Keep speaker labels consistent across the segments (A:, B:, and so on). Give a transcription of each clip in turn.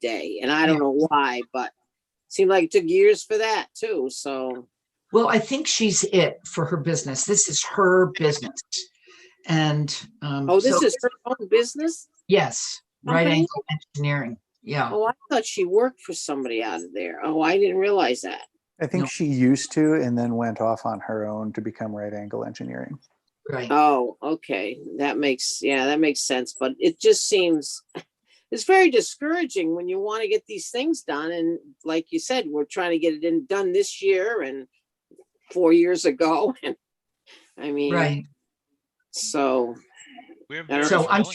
A: day, and I don't know why, but seemed like it took years for that too, so.
B: Well, I think she's it for her business. This is her business. And, um,
A: Oh, this
B: so-
A: is her own business?
B: Yes, right
A: Okay.
B: angle engineering. Yeah.
A: Oh, I thought she worked for somebody out of there. Oh, I didn't realize that.
C: I think
B: No.
C: she used to and then went off on her own to become right angle engineering.
B: Right.
A: Oh, okay, that makes, yeah, that makes sense, but it just seems, it's very discouraging when you want to get these things done, and like you said, we're trying to get it in, done this year and four years ago, and, I mean,
B: Right.
A: so,
D: We're
A: So
D: very
B: I'm
D: willing to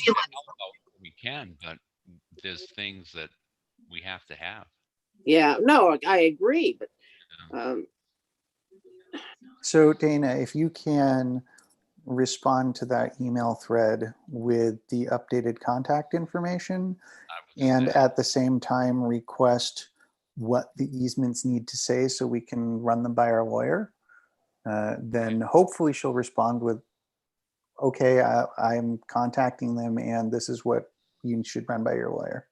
B: feeling-
D: help out when We can, but there's things that we have to have.
A: yeah, no, I agree, but, um,
C: So Dana, if you can respond to that email thread with the updated contact information
D: I would say
C: and at the same time request what the easements need to say so we can run them by our lawyer. Uh, Then hopefully she'll respond with, okay, I, I'm contacting them and this is what you should run by your lawyer.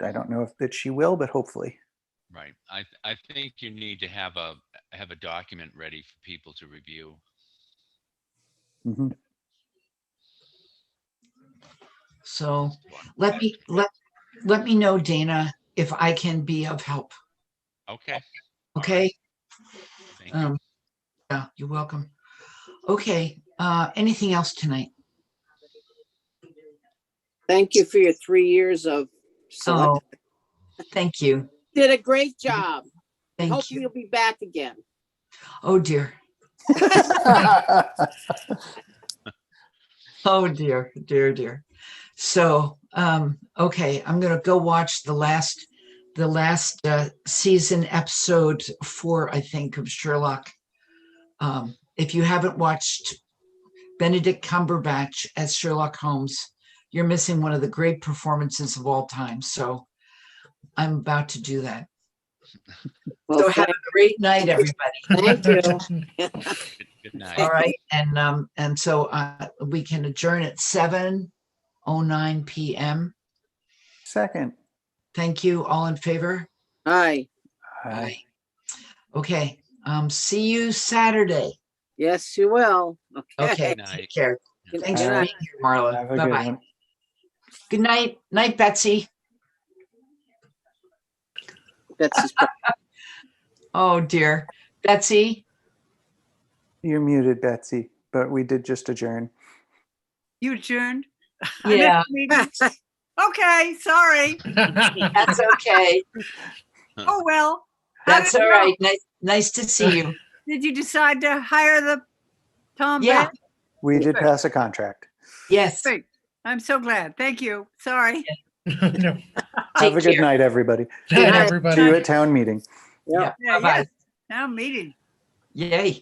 C: I don't know if that she will, but hopefully.
D: Right. I, th- I think you need to have a, have a document ready for people to review.
C: Mhm.
B: So let me, let, let me know, Dana, if I can be of help.
D: Okay.
B: Okay.
D: thank you.
B: Um, yeah, you're welcome. Okay. Uh, anything else tonight?
A: Thank you for your three years of select.
B: Oh, thank you.
A: Did a great job.
B: Thank
A: Hopefully
B: you.
A: you'll be back again.
B: Oh, dear. Oh, dear, dear, dear. So, um, okay, I'm gonna go watch the last, the last, uh, season episode four, I think, of Sherlock. Um, if you haven't watched Benedict Cumberbatch as Sherlock Holmes, you're missing one of the great performances of all time, so I'm about to do that. So
A: Well,
B: have a great night, everybody.
A: thank you.
D: Good- Good night.
B: All right, and, um, and so, uh, we can adjourn at seven oh nine PM.
C: Second.
B: Thank you. All in favor?
A: Hi,
C: I-
B: Okay, um, see you Saturday.
A: yes, you will.
B: Okay,
D: Good night.
B: take care.
A: Good
B: Thanks for
A: night.
B: being here, Marla.
C: Have a good
B: Bye-bye.
C: one.
B: Good night. Night, Betsy.
A: Betsy's
B: Oh, dear. Betsy?
C: You're muted, Betsy, but we did just adjourn.
E: You adjourned? I missed
B: Yeah,
E: the meeting. Okay, sorry.
B: that's okay.
E: Oh, well. How
B: That's
E: did
B: all
E: it
B: right. Nice, nice to see you.
E: go? Did you decide to hire the Tom
B: Yeah,
E: Bennett?
C: We did
E: Sure.
C: pass a contract.
B: yes.
E: Great. I'm so glad. Thank you. Sorry.
F: No.
C: Have a
B: Take
C: good
B: care.
C: night, everybody.
F: Night,
B: night.
F: everybody.
C: See you at town meeting.
A: Yeah.
B: Yeah,
E: Yeah,
B: Bye-bye.
E: yes. Now meeting.
B: Yay.